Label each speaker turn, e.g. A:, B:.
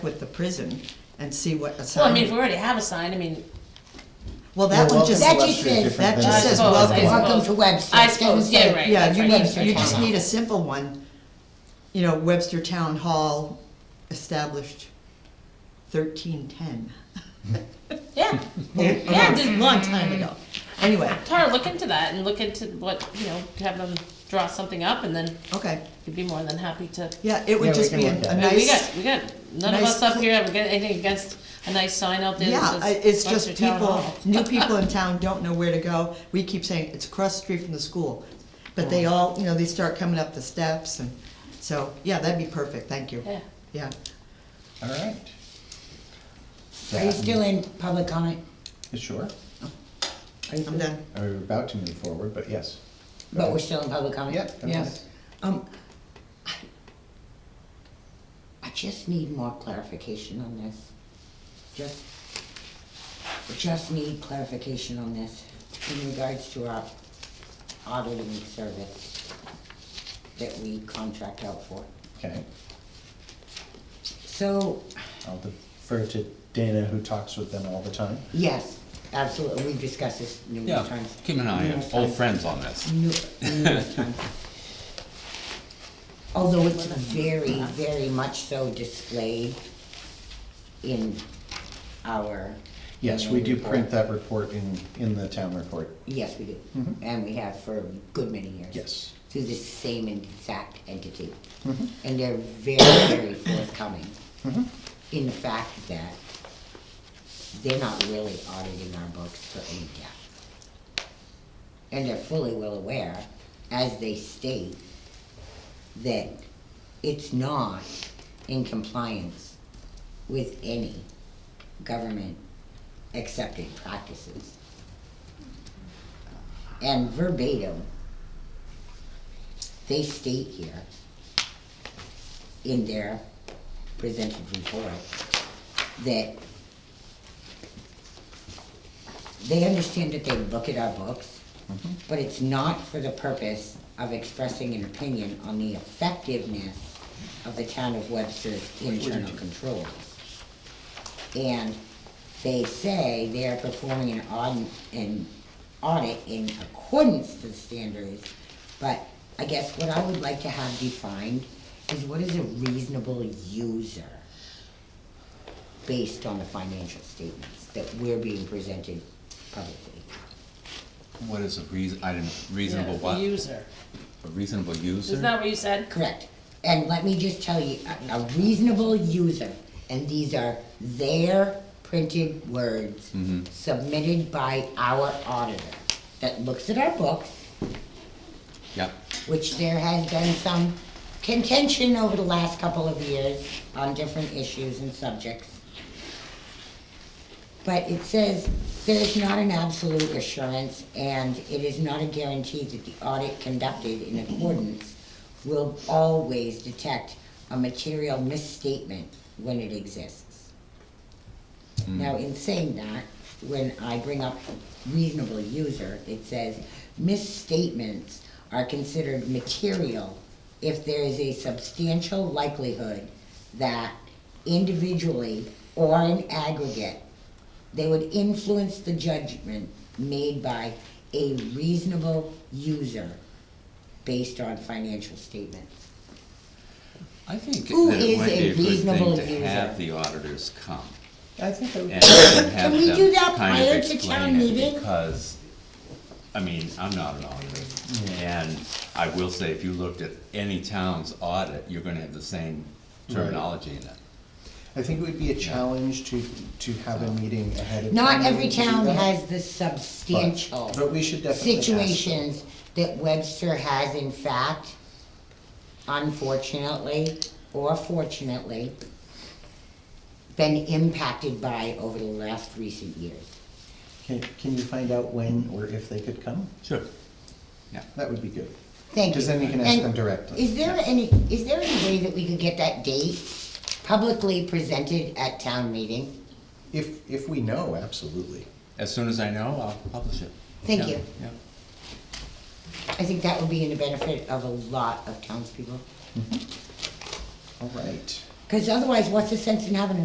A: with the prison and see what a
B: Well, I
A: sign.
B: mean, if we already have a sign, I mean,
A: Well, that
C: Well,
A: one just,
C: welcome
A: that
C: to
A: just
C: Webster is
A: says,
C: different
A: that
C: than-
A: just
B: I
A: says
B: suppose, I
A: welcome.
C: Welcome to Webster.
B: I suppose,
C: Doesn't say-
B: yeah, right.
A: Yeah,
B: That's
A: you
B: right,
A: need,
B: Webster
A: you
B: Town
A: just
B: Hall.
A: need a simple one, you know, Webster Town Hall established thirteen ten.
B: yeah,
A: Yeah, just a long time ago. Anyway,
B: Tara, look into that and look into what, you know, have them draw something up and then
A: okay,
B: you'd be more than happy to.
A: yeah, it
C: Yeah,
A: would
C: we
A: just
C: can
A: be a
C: look
A: a
C: at it.
B: I mean, we
A: nice,
B: got, we got, none of
A: nice
B: us up
A: cl-
B: here have got anything against a nice sign out there
A: yeah,
B: that
A: I-
B: says.
A: it's just
B: Webster Town
A: people,
B: Hall.
A: new people in town don't know where to go. We keep saying, it's across the street from the school, but they all, you know, they start coming up the steps and, so, yeah, that'd be perfect, thank you,
B: Yeah,
A: yeah.
C: All right.
D: Are you
C: That-
D: still in Oh. public comment?
C: Sure.
D: Are you
A: I'm
D: still-
A: done.
C: We're about to move forward, but yes.
D: But we're still in public comment?
C: Yep. okay.
D: Yes. Um, I, I just need more clarification on this. Just, just need clarification on this in regards to our auditing service that we contract out for.
C: Okay,
D: So,
C: I'll defer to Dana, who talks with them all the time.
D: yes, absolutely, we've discussed this numerous
E: Yeah,
D: times.
E: Kim and I are
D: Numerous
E: old
D: times.
E: friends on this.
D: Nu- numerous times. Although it's very, very much so displayed in our.
C: Yes, we do print that report in, in the town report.
D: Yes, we do,
C: Mhm.
D: and we have for a good many years.
C: Yes.
D: Through this same exact entity. And they're very, very forthcoming in the fact that they're not really auditing our books for any gap. And they're fully well aware, as they state, that it's not in compliance with any government accepted practices. And verbatim, they state here in their presented report that they understand that they look at our books, but it's not for the purpose of expressing an opinion on the effectiveness of the town of Webster's internal controls. And they say they are performing an audit, an audit in accordance to the standards, but I guess what I would like to have defined is what is a reasonable user based on the financial statements that we're being presented publicly.
E: What is a reason, I didn't, reasonable
B: Yeah,
E: what? A
B: User,
E: reasonable user?
B: isn't that what you said?
D: Correct. And let me just tell you, a, a reasonable user, and these are their printed words submitted by our auditor that looks at our books,
E: Yeah,
D: which there has been some contention over the last couple of years on different issues and subjects. But it says, there is not an absolute assurance, and it is not a guarantee that the audit conducted in accordance will always detect a material misstatement when it exists. Now, in saying that, when I bring up reasonable user, it says misstatements are considered material if there is a substantial likelihood that individually or in aggregate, they would influence the judgment made by a reasonable user based on financial statements.
E: I think that
D: Who
E: it
D: is
E: might
D: a
E: be a good
D: reasonable
E: thing to have
D: user?
E: the auditors come.
C: I think that we.
E: and have
D: we
E: them
D: do that
E: kind of
D: prior to town
E: explain it,
D: meeting?
E: Because, I mean, I'm not an auditor,
D: Mm.
E: and I will say, if you looked at any town's audit, you're gonna have the same terminology in it.
C: I think it would be a challenge to, to have a meeting ahead of.
D: Not
C: time
D: every
C: to do
D: town
C: that,
D: has the
C: but-
D: substantial
C: But we should definitely ask them.
D: situations that Webster has in fact, unfortunately or fortunately, been impacted by over the last recent years.
C: Can, can you find out when or if they could come?
E: Sure.
C: That would be good.
D: Thank you.
C: Because then you can ask
D: And
C: them directly.
D: Is there any, is there any way that we could get that date publicly presented at town meeting?
C: If, if we know, absolutely.
E: As soon as I know, I'll publish it.
D: Thank
E: Yeah,
D: you.
E: Yeah.
D: I think that would be in the benefit of a lot of townspeople.
C: All right.
D: Because otherwise, what's the sense in having